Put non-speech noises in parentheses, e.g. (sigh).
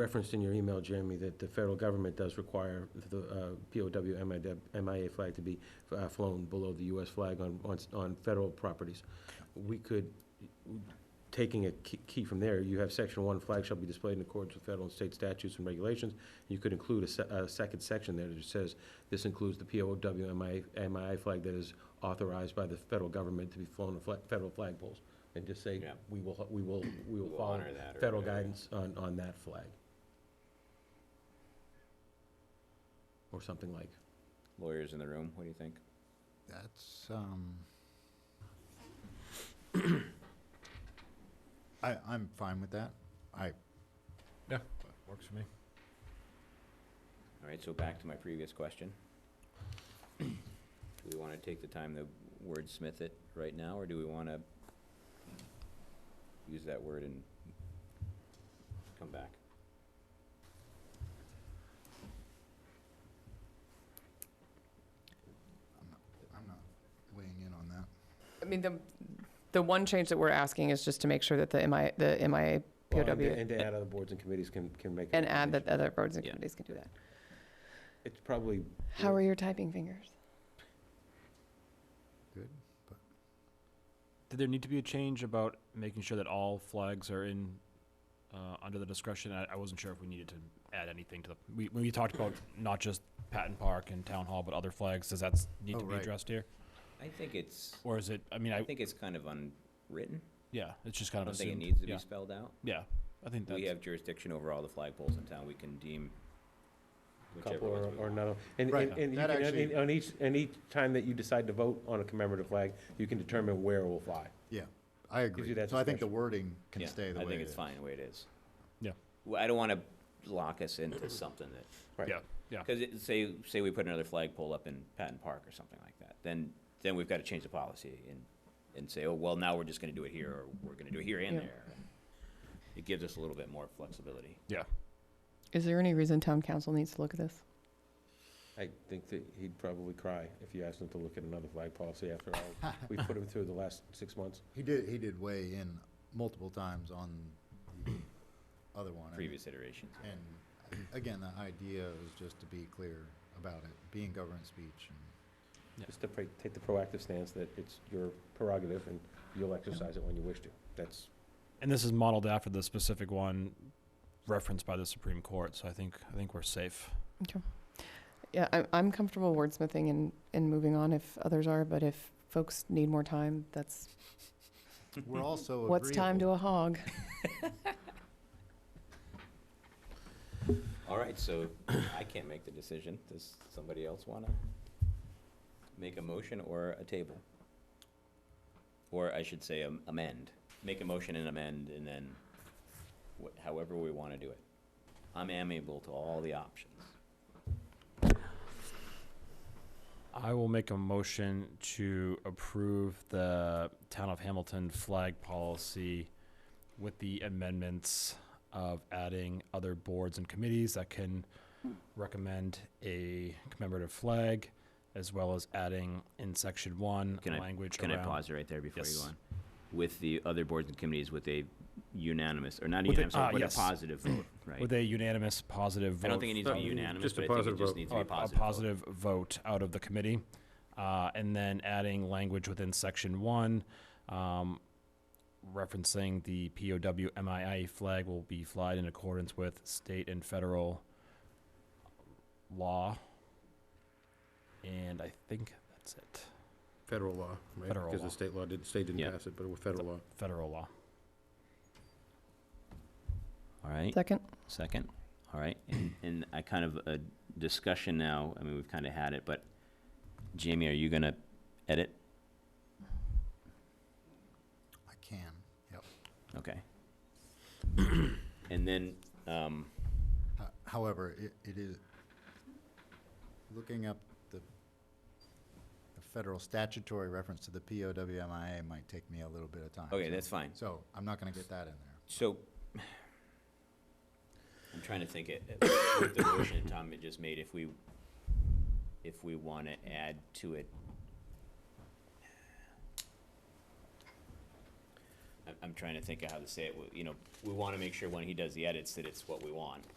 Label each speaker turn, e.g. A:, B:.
A: referenced in your email, Jeremy, that the federal government does require the uh, POW MIA MIA flag to be uh, flown below the US flag on, on, on federal properties. We could, taking a key key from there, you have section one, flag shall be displayed in accordance with federal and state statutes and regulations. You could include a se- a second section there that says, this includes the POW MIA MIA flag that is authorized by the federal government to be flown on fla- federal flagpoles. And just say,
B: Yeah.
A: we will, we will, we will
B: We'll
A: follow
B: honor that or
A: federal
B: whatever.
A: guidance on, on that flag. Or something like,
B: Lawyers in the room, what do you think?
C: That's, um, I, I'm fine with that. I,
D: Yeah, works for me.
B: All right, so back to my previous question. (clears throat) Do we want to take the time to wordsmith it right now, or do we want to use that word and come back?
C: I'm not weighing in on that.
E: I mean, the, the one change that we're asking is just to make sure that the MI, the MIA
A: Well, and to-
E: POW,
A: and to add other boards and committees can, can make. a
E: and add that
A: recommendation.
E: other boards and
B: Yeah.
E: committees can do that.
A: It's probably,
E: How are your typing fingers?
C: Good?
D: Did there need to be a change about making sure that all flags are in, uh, under the discretion? I, I wasn't sure if we needed to add anything to the, we, we talked about not just Patton Park and Town Hall, but other flags. Does that s- need
C: Oh,
D: to be
C: right.
D: addressed here?
B: I think it's,
D: Or is it, I mean,
B: I
D: I,
B: think it's kind of unwritten.
D: yeah, it's just
B: I
D: kind of
B: don't think it
D: assumed.
B: needs to
D: Yeah,
B: be spelled out.
D: Yeah, I think
B: We
D: that's,
B: have jurisdiction over all the flagpoles in town. We can deem whichever
A: couple or,
B: ones we
A: or
B: want.
A: none. of- And,
C: Right.
A: and and you
C: That
A: can,
C: actually-
A: and on each, and each time that you decide to vote on a commemorative flag, you can determine where it will fly.
C: Yeah, I agree.
A: that
C: So I think the
A: discretion.
C: wording can
B: Yeah,
C: stay the way
B: I think
C: it
B: it's
C: is.
B: fine the way it is.
D: Yeah.
B: Well, I don't want to lock us into something that
A: Right.
D: yeah, yeah.
B: Because say, say we put another flagpole up in Patton Park or something like that, then, then we've got to change the policy and, and say, oh, well, now we're just going to do it here, or we're going to do it here and
E: Yeah.
B: there. It gives us a little bit more flexibility.
E: Is there any reason town council needs to look at this?
A: I think that he'd probably cry if you asked him to look at another flag policy after (laughs) all we put him through the last six months.
C: He did, he did weigh in multiple times on the other one. I mean,
B: Previous iterations.
C: And again, the idea is just to be clear about it, being government speech and
A: Just to pra- take the proactive stance that it's your prerogative and you'll exercise it when you wish to. That's,
D: And this is modeled after the specific one referenced by the Supreme Court, so I think, I think we're safe.
E: Yeah, I'm, I'm comfortable wordsmithing and, and moving on if others are, but if folks need more time, that's,
C: we're also
E: (laughs) what's time to
C: agreeable.
E: a hog?
B: All right, so I can't make the decision. Does somebody else want to make a motion or a table? Or I should say am- amend. Make a motion and amend, and then wh- however we want to do it. I'm amiable to all the options.
D: I will make a motion to approve the town of Hamilton flag policy with the amendments of adding other boards and committees that can recommend a commemorative flag, as well as adding in section one,
B: Can I-
D: language
B: Can I
D: around.
B: pause right there before you go
D: Yes.
B: on? With the other boards and committees with a unanimous, or not
D: With a-
B: unanimous,
D: ah,
B: but a
D: yes.
B: positive
D: (clears throat)
B: vote, right?
D: With a unanimous positive vote.
B: I don't think it needs to be
D: Uh,
B: unanimous,
A: just a
B: but I think it
A: positive
B: just
A: vote.
B: needs to
D: a,
B: be a
D: a
B: positive vote.
D: positive vote out of the committee, uh, and then adding language within section one, um, referencing the POW MIA flag will be flied in accordance with state and federal law. And I think that's it.
F: Federal law, right?
D: Federal
F: Because
D: law.
F: the state law did, state
B: Yeah.
F: didn't pass it, but it was federal law.
D: Federal law.
B: All right,
E: Second?
B: second, all right. And, and I kind of, a discussion now, I mean, we've kind of had it, but Jamie, are you gonna edit?
C: I can.
B: Okay. (clears throat) And then, um,
C: Ho- However, it, it is, looking up the, the federal statutory reference to the POWMIA might take me a little bit of time.
B: okay,
C: so-
B: that's fine.
C: So I'm not gonna get that in there.
B: So, (sighs) I'm trying to think it, with the motion Tom had just made, if we, if we want to add to it. I- I'm trying to think of how to say it, We- you know, we wanna make sure when he does the edits that it's what we want.